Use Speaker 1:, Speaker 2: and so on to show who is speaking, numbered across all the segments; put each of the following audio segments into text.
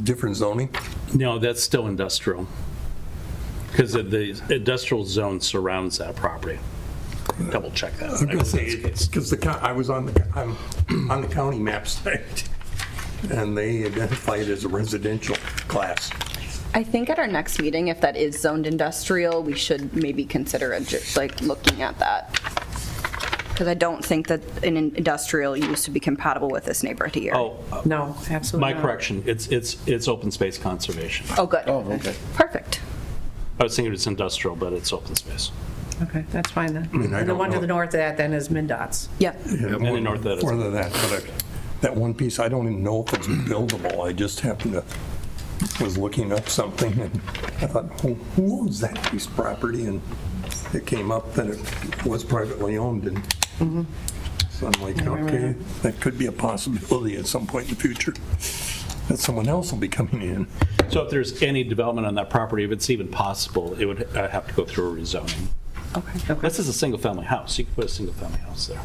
Speaker 1: different zoning?
Speaker 2: No, that's still industrial. Because the industrial zone surrounds that property. Double check that.
Speaker 1: I'm gonna say, it's, because the, co- I was on, the I'm on the county map site, and they identified it as a residential class.
Speaker 3: I think at our next meeting, if that is zoned industrial, we should maybe consider a ju- like looking at that. Because I don't think that an in- industrial use would be compatible with this neighborhood here.
Speaker 2: Oh, uh,
Speaker 4: No, absolutely
Speaker 2: my
Speaker 4: not.
Speaker 2: correction, it's, it's, it's open space conservation.
Speaker 3: Oh, good. Oh, okay. Perfect.
Speaker 2: I was thinking it's industrial, but it's open space.
Speaker 4: Okay, that's fine then.
Speaker 1: I
Speaker 4: And The
Speaker 1: don't
Speaker 4: one to
Speaker 1: know.
Speaker 4: the north of that then is MinDOT's.
Speaker 3: Yep.
Speaker 1: And
Speaker 2: the north that is.
Speaker 1: Further than that, but I- that one piece, I don't even know if it's buildable, I just happened to, was looking up something, and I thought, who who owns that piece of property? And it came up that it was privately owned, and so I'm like, okay, that could be a possibility at some point in the future, that someone else will be coming in.
Speaker 2: So if there's any development on that property, if it's even possible, it would uh, have to go through a rezoning.
Speaker 3: Okay.
Speaker 2: This is a single-family house. You could put a single-family house there.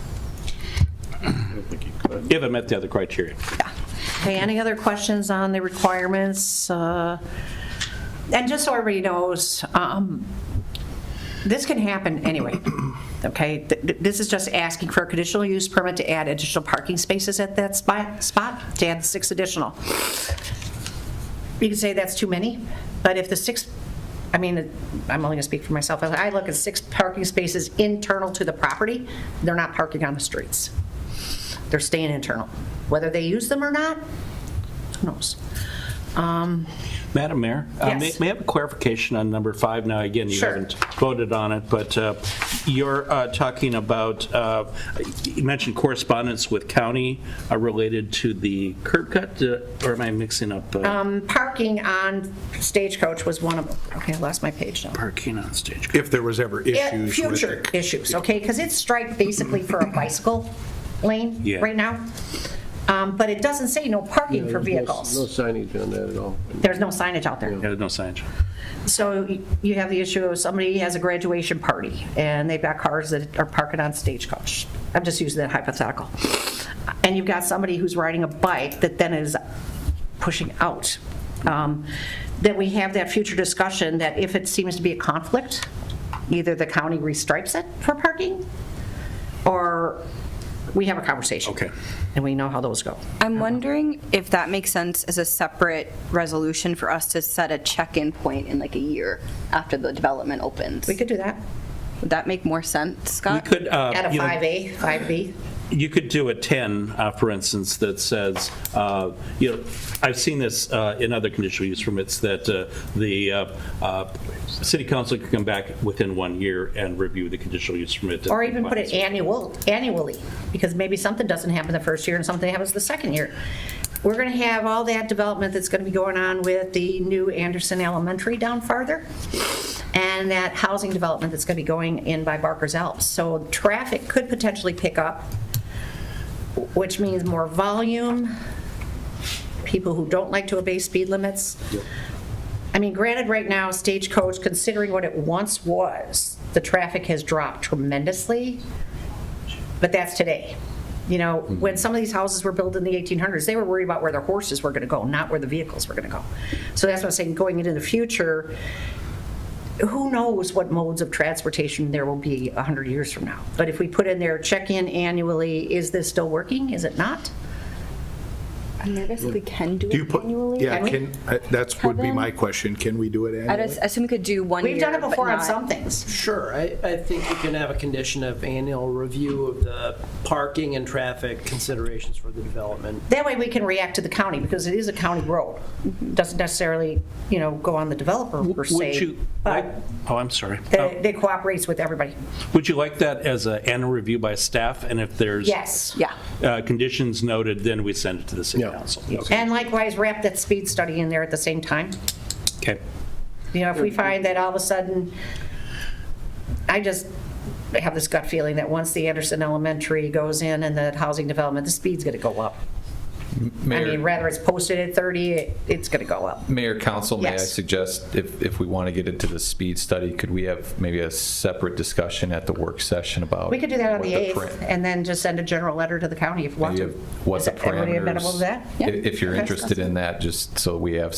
Speaker 2: I don't think you could. If it met the other criteria.
Speaker 4: Okay, any other questions on the requirements? Uh, And just so everybody knows, um, this can happen anyway, okay? Th- th- This is just asking for a conditional use permit to add additional parking spaces at that spot, spot, to add six additional. You could say that's too many, but if the six, I mean, I'm only going to speak for myself, As I look at six parking spaces internal to the property, they're not parking on the streets. They're staying internal. Whether they use them or not, who knows? Um,
Speaker 2: Madam Mayor? uh, may-
Speaker 4: Yes.
Speaker 2: May I have a clarification on number five? Now, again, you
Speaker 4: Sure.
Speaker 2: haven't voted on it, but uh, you're uh, talking about, uh, you mentioned correspondence with county uh, related to the curb cut, uh, or am I mixing up uh,
Speaker 4: Um, Parking on Stagecoach was one of them. Okay, I lost my page now.
Speaker 2: parking on stage?
Speaker 5: if there was ever
Speaker 4: Yeah,
Speaker 5: issues with
Speaker 4: Future
Speaker 5: it.
Speaker 4: issues, okay? Because it's striped basically for a bicycle lane
Speaker 2: Yeah.
Speaker 4: right now. Um, But it doesn't say no parking for
Speaker 6: There's no-
Speaker 4: vehicles.
Speaker 6: No signage on that at all.
Speaker 4: There's no signage out there.
Speaker 2: Yeah, no signage.
Speaker 4: So you have the issue of somebody has a graduation party, and they've got cars that are parking on Stagecoach. I'm just using that hypothetical. And you've got somebody who's riding a bike that then is pushing out. Um, That we have that future discussion that if it seems to be a conflict, either the county restripes it for parking, or we have a conversation.
Speaker 2: Okay.
Speaker 4: And we know how those go.
Speaker 3: I'm wondering if that makes sense as a separate resolution for us to set a check-in point in like a year after the development opens.
Speaker 4: We could do that
Speaker 3: Would that make more sense,
Speaker 2: You
Speaker 3: Scott?
Speaker 2: could, uh,
Speaker 4: at a
Speaker 2: you know,
Speaker 4: 5A, 5B.
Speaker 2: you could do a 10, uh, for instance, that says, uh, you know, I've seen this uh, in other conditional use permits, that uh, the uh, uh, city council could come back within one year and review the conditional use permit.
Speaker 4: Or even put it annual, annually, because maybe something doesn't happen the first year and something happens the second year. We're gonna have all that development that's gonna be going on with the new Anderson Elementary down farther, and that housing development that's gonna be going in by Barker's Alps. So traffic could potentially pick up, which means more volume, people who don't like to obey speed limits. I mean, granted, right now, Stagecoach, considering what it once was, the traffic has dropped tremendously, but that's today. You know, when some of these houses were built in the 1800s, they were worried about where their horses were going to go, not where the vehicles were going to go. So that's what I'm saying, going into the future, who knows what modes of transportation there will be 100 years from now? But if we put in there, check in annually, is this still working? Is it not?
Speaker 3: I'm nervous if we can do
Speaker 5: Do you
Speaker 3: it
Speaker 5: put,
Speaker 3: annually.
Speaker 5: yeah, can, uh, that's, would be my
Speaker 3: Kevin?
Speaker 5: question, can we do it
Speaker 3: I
Speaker 5: annually?
Speaker 3: just assume we could do one year.
Speaker 4: We've done it
Speaker 3: but
Speaker 4: before on
Speaker 3: not-
Speaker 4: some things.
Speaker 6: Sure, I, I think you can have a condition of annual review of the parking and traffic considerations for the development.
Speaker 4: That way we can react to the county, because it is a county road. Doesn't necessarily, you know, go on the developer per
Speaker 2: Would
Speaker 4: se,
Speaker 2: you,
Speaker 4: but
Speaker 2: oh, I'm sorry.
Speaker 4: they they cooperates with everybody.
Speaker 2: Would you like that as an annual review by staff? And if there's
Speaker 4: Yes.
Speaker 3: Yeah.
Speaker 2: uh, conditions noted, then we send it to the city
Speaker 5: Yeah.
Speaker 2: council.
Speaker 4: And likewise, wrap that speed study in there at the same time.
Speaker 2: Okay.
Speaker 4: You know, if we find that all of a sudden, I just have this gut feeling that once the Anderson Elementary goes in and the housing development, the speed's going to go up. I mean,
Speaker 7: Mayor,
Speaker 4: rather it's posted at 30, it- it's going to go up.
Speaker 7: Mayor, Council, may I
Speaker 4: Yes.
Speaker 7: suggest, if, if we want to get into the speed study, could we have maybe a separate discussion at the work session about?
Speaker 4: We could do that on
Speaker 7: what
Speaker 4: the 8th,
Speaker 7: param-
Speaker 4: and then just send a general letter to the county if you want
Speaker 7: maybe
Speaker 4: to.
Speaker 7: of What
Speaker 4: Is
Speaker 7: the
Speaker 4: Everybody
Speaker 7: parameters?
Speaker 4: amenable to that?
Speaker 7: If if you're
Speaker 4: Okay.
Speaker 7: interested in that, just so we have